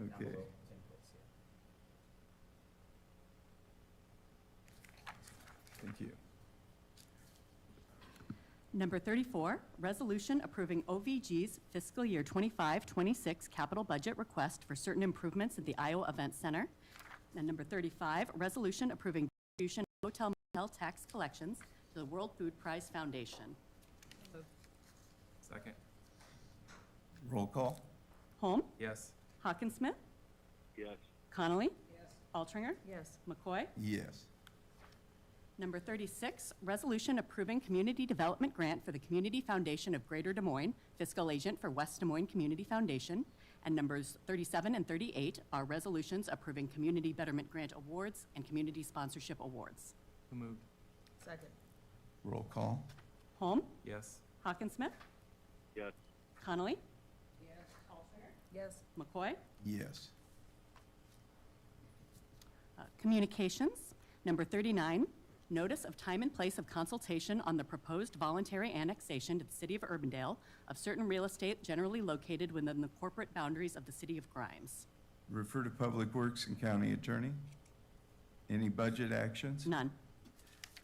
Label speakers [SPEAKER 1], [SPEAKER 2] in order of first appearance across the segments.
[SPEAKER 1] Okay. Thank you.
[SPEAKER 2] Number 34, resolution approving OVG's fiscal year 25-26 capital budget request for certain improvements at the Iowa Event Center. And number 35, resolution approving distribution of hotel motel tax collections to the World Food Prize Foundation.
[SPEAKER 1] Second. Roll call?
[SPEAKER 2] Holm,
[SPEAKER 1] Yes.
[SPEAKER 2] Hawkinsmith,
[SPEAKER 3] yes,
[SPEAKER 2] Connolly. Altringer.
[SPEAKER 4] yes,
[SPEAKER 2] McCoy.
[SPEAKER 1] Yes.
[SPEAKER 2] Number 36, resolution approving community development grant for the Community Foundation of Greater Des Moines, fiscal agent for West Des Moines Community Foundation. And numbers 37 and 38 are resolutions approving community betterment grant awards and community sponsorship awards.
[SPEAKER 1] Who moved?
[SPEAKER 4] second,
[SPEAKER 5] Roll call?
[SPEAKER 2] Holm,
[SPEAKER 1] Yes.
[SPEAKER 2] Hawkinsmith,
[SPEAKER 3] yes,
[SPEAKER 2] Connolly,
[SPEAKER 4] yes,
[SPEAKER 2] McCoy.
[SPEAKER 5] Yes.
[SPEAKER 2] Uh, Communications, number 39, notice of time and place of consultation on the proposed voluntary annexation to the city of Urbandale of certain real estate generally located within the corporate boundaries of the city of Grimes.
[SPEAKER 5] Refer to Public Works and County Attorney. Any budget actions?
[SPEAKER 2] None.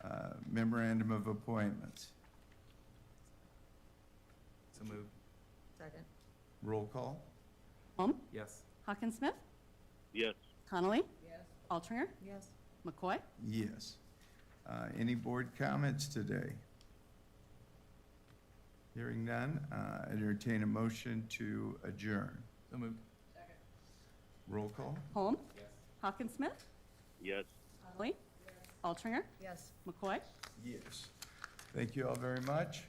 [SPEAKER 5] Uh, Memorandum of appointments.
[SPEAKER 1] So moved.
[SPEAKER 4] second,
[SPEAKER 5] Roll call?
[SPEAKER 2] Holm,
[SPEAKER 1] Yes.
[SPEAKER 2] Hawkinsmith,
[SPEAKER 3] yes,
[SPEAKER 2] Connolly,
[SPEAKER 4] yes,
[SPEAKER 2] Altringer,
[SPEAKER 4] yes,
[SPEAKER 2] McCoy.
[SPEAKER 5] Yes. Uh, Any board comments today? Hearing none, uh, entertain a motion to adjourn.
[SPEAKER 1] So moved.
[SPEAKER 5] Roll call?
[SPEAKER 2] Holm,
[SPEAKER 1] Yes.
[SPEAKER 2] Hawkinsmith,
[SPEAKER 3] yes.
[SPEAKER 2] Connolly, Altringer,
[SPEAKER 4] yes.
[SPEAKER 2] McCoy.
[SPEAKER 5] Yes. Thank you all very much.